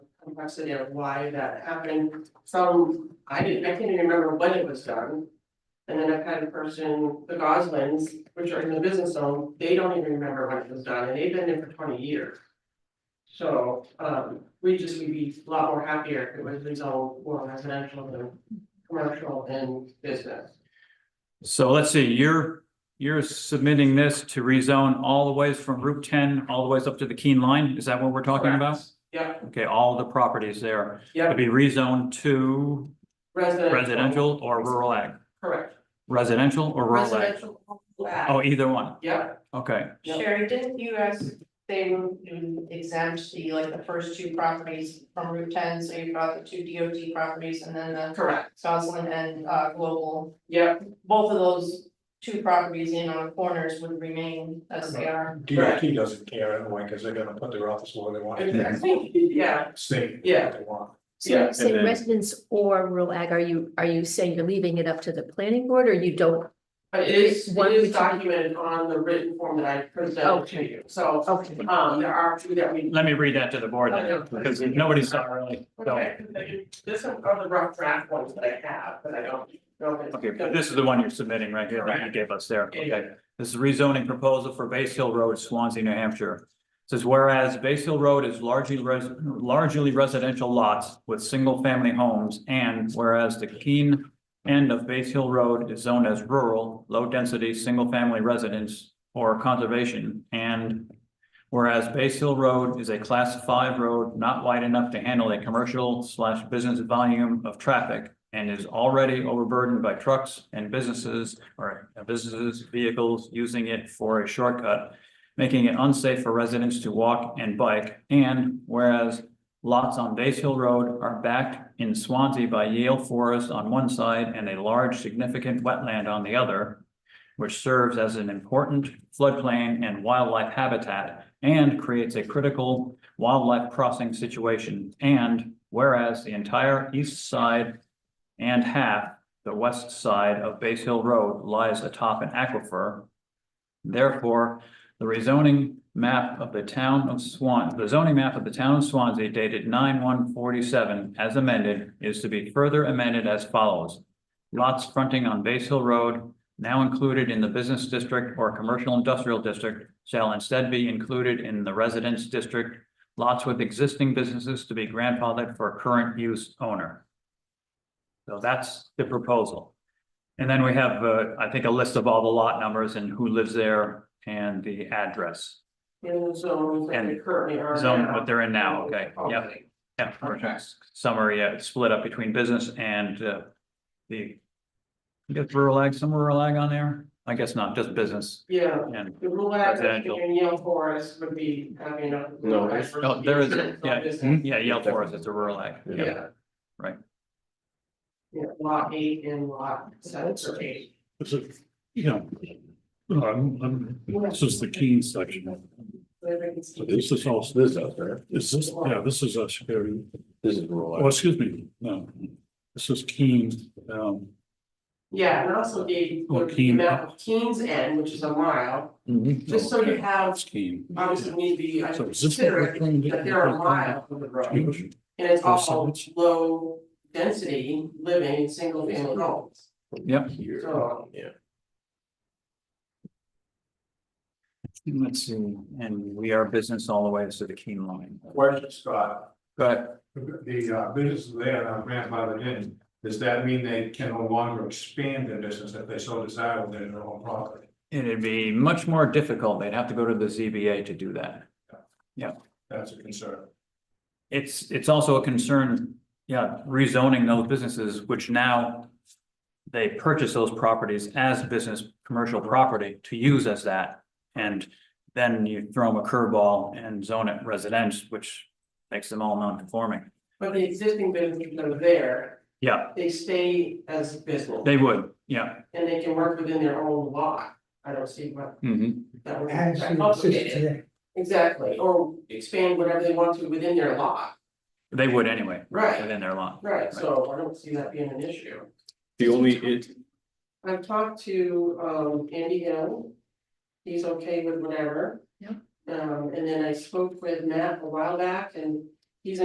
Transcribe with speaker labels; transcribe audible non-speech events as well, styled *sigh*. Speaker 1: complexity of why that happened from, I didn't, I can't even remember when it was done. And then I've had a person, the Goslings, which are in the business zone, they don't even remember when it was done, and they've been there for twenty years. So, um, we just would be a lot more happier if it was rezoned more residential than commercial and business.
Speaker 2: So let's see, you're, you're submitting this to rezone all the ways from Route ten, all the ways up to the Keen Line, is that what we're talking about?
Speaker 1: Yep,
Speaker 2: Okay, all the properties there,
Speaker 1: yep,
Speaker 2: would be rezoned to
Speaker 1: residential.
Speaker 2: residential or rural ag,
Speaker 1: Correct.
Speaker 2: residential or rural ag?
Speaker 1: Residential. Yep,
Speaker 2: Oh, either one, okay,
Speaker 1: Yep.
Speaker 3: Sherry, didn't you ask, they would exempt the, like, the first two properties from Route ten, so you brought the two DOT properties and then the
Speaker 1: correct,
Speaker 3: Goslin and uh Global.
Speaker 1: yep,
Speaker 3: Both of those two properties in on the corners would remain as they are.
Speaker 4: DOT doesn't care anyway, because they're gonna put their office where they want it,
Speaker 1: exactly, *laughs* yeah,
Speaker 4: state
Speaker 1: Yeah.
Speaker 4: what they want.
Speaker 5: So when
Speaker 1: Yeah,
Speaker 5: you say
Speaker 2: and then-
Speaker 5: residents or rural ag, are you, are you saying you're leaving it up to the planning board or you don't?
Speaker 1: but it is, it
Speaker 5: One
Speaker 1: is
Speaker 5: which-
Speaker 1: documented on the written form that I presented to
Speaker 5: Okay.
Speaker 1: you, so,
Speaker 5: Okay.
Speaker 1: um, there are two that we.
Speaker 2: let me read that to the board then,
Speaker 5: Okay.
Speaker 2: because nobody's done really, so,
Speaker 1: Okay, This is one of the rough draft ones that I have, but I don't know if it's.
Speaker 2: okay, but this is the one you're submitting right here, that you gave us there, okay.
Speaker 1: Yeah.
Speaker 2: This is rezoning proposal for Base Hill Road, Swansea, New Hampshire. Says whereas Base Hill Road is largely res- largely residential lots with single-family homes. And whereas the Keene end of Base Hill Road is zoned as rural, low-density, single-family residence or conservation. And whereas Base Hill Road is a class five road not wide enough to handle a commercial slash business volume of traffic and is already overburdened by trucks and businesses or businesses, vehicles using it for a shortcut, making it unsafe for residents to walk and bike. And whereas lots on Base Hill Road are backed in Swansea by Yale Forest on one side and a large significant wetland on the other, which serves as an important floodplain and wildlife habitat and creates a critical wildlife crossing situation. And whereas the entire east side and half the west side of Base Hill Road lies atop an aquifer. Therefore, the rezoning map of the town of Swan, the zoning map of the town of Swansea dated nine one forty-seven as amended is to be further amended as follows. Lots fronting on Base Hill Road, now included in the business district or commercial industrial district, shall instead be included in the residence district. Lots with existing businesses to be grandfathered for current use owner. So that's the proposal. And then we have, uh, I think, a list of all the lot numbers and who lives there and the address.
Speaker 1: In the zones that they
Speaker 2: And
Speaker 1: currently are
Speaker 2: Zone,
Speaker 1: now.
Speaker 2: what they're in now, okay, yep, yep. Summary, uh, split up between business and, uh, the. I guess rural ag, some rural ag on there? I guess not, just business
Speaker 1: Yeah,
Speaker 2: and,
Speaker 1: the rural access
Speaker 2: Residential.
Speaker 1: between Yale Forest would be having a.
Speaker 6: No, there's-
Speaker 2: no, oh, there is,
Speaker 1: Business,
Speaker 2: yeah,
Speaker 1: business,
Speaker 2: yeah, Yale Forest, it's a rural ag. yeah.
Speaker 1: Yeah.
Speaker 2: Right.
Speaker 1: Yeah, lot eight and lot seven or eight,
Speaker 7: This is, you know, no, I'm, I'm, this is the Keene section. So This is also,
Speaker 6: This
Speaker 7: this,
Speaker 6: is out there,
Speaker 7: is this, yeah, this is us here.
Speaker 6: this is rural.
Speaker 7: Oh, excuse me, no, this is Keene, um,
Speaker 1: yeah, and also the,
Speaker 7: Or
Speaker 1: the
Speaker 7: Keene.
Speaker 1: amount of Keens End, which is a mile, just so you
Speaker 7: okay,
Speaker 1: have,
Speaker 7: it's Keene.
Speaker 1: obviously need to be, I
Speaker 7: So is this
Speaker 1: consider
Speaker 7: what we're trying to
Speaker 1: it,
Speaker 7: do?
Speaker 1: that there are miles of the road. And it's
Speaker 7: Or
Speaker 1: all
Speaker 7: signage.
Speaker 1: low density living, single family homes,
Speaker 2: Yep.
Speaker 6: Here.
Speaker 1: so.
Speaker 6: Yeah.
Speaker 2: Let's see, and we are business all the way to the Keene line.
Speaker 4: Question, Scott,
Speaker 2: Go ahead.
Speaker 4: the uh, businesses there that are grandfathered in, does that mean they can no longer expand their business if they so desire within their own property?
Speaker 2: It'd be much more difficult. They'd have to go to the ZBA to do that.
Speaker 4: That's a concern.
Speaker 2: It's, it's also a concern, yeah, rezoning those businesses, which now they purchase those properties as business, commercial property to use as that. And then you throw them a curveball and zone it residence, which makes them all non-conforming.
Speaker 1: But the existing businesses that are there,
Speaker 2: Yeah,
Speaker 1: they stay as business
Speaker 2: they would, yeah.
Speaker 1: and they can work within their own lot. I don't see what
Speaker 6: Mm-hmm.
Speaker 2: Mhm.
Speaker 1: that would be complicated. Exactly, or expand whatever they want to within their lot,
Speaker 2: They would anyway.
Speaker 1: Right.
Speaker 2: Within their law.
Speaker 1: right, so I don't see that being an issue.
Speaker 6: The only, it,
Speaker 1: I've talked to um Andy Hill. He's okay with whatever.
Speaker 5: Yeah.
Speaker 1: Um, and then I spoke with Matt a while back and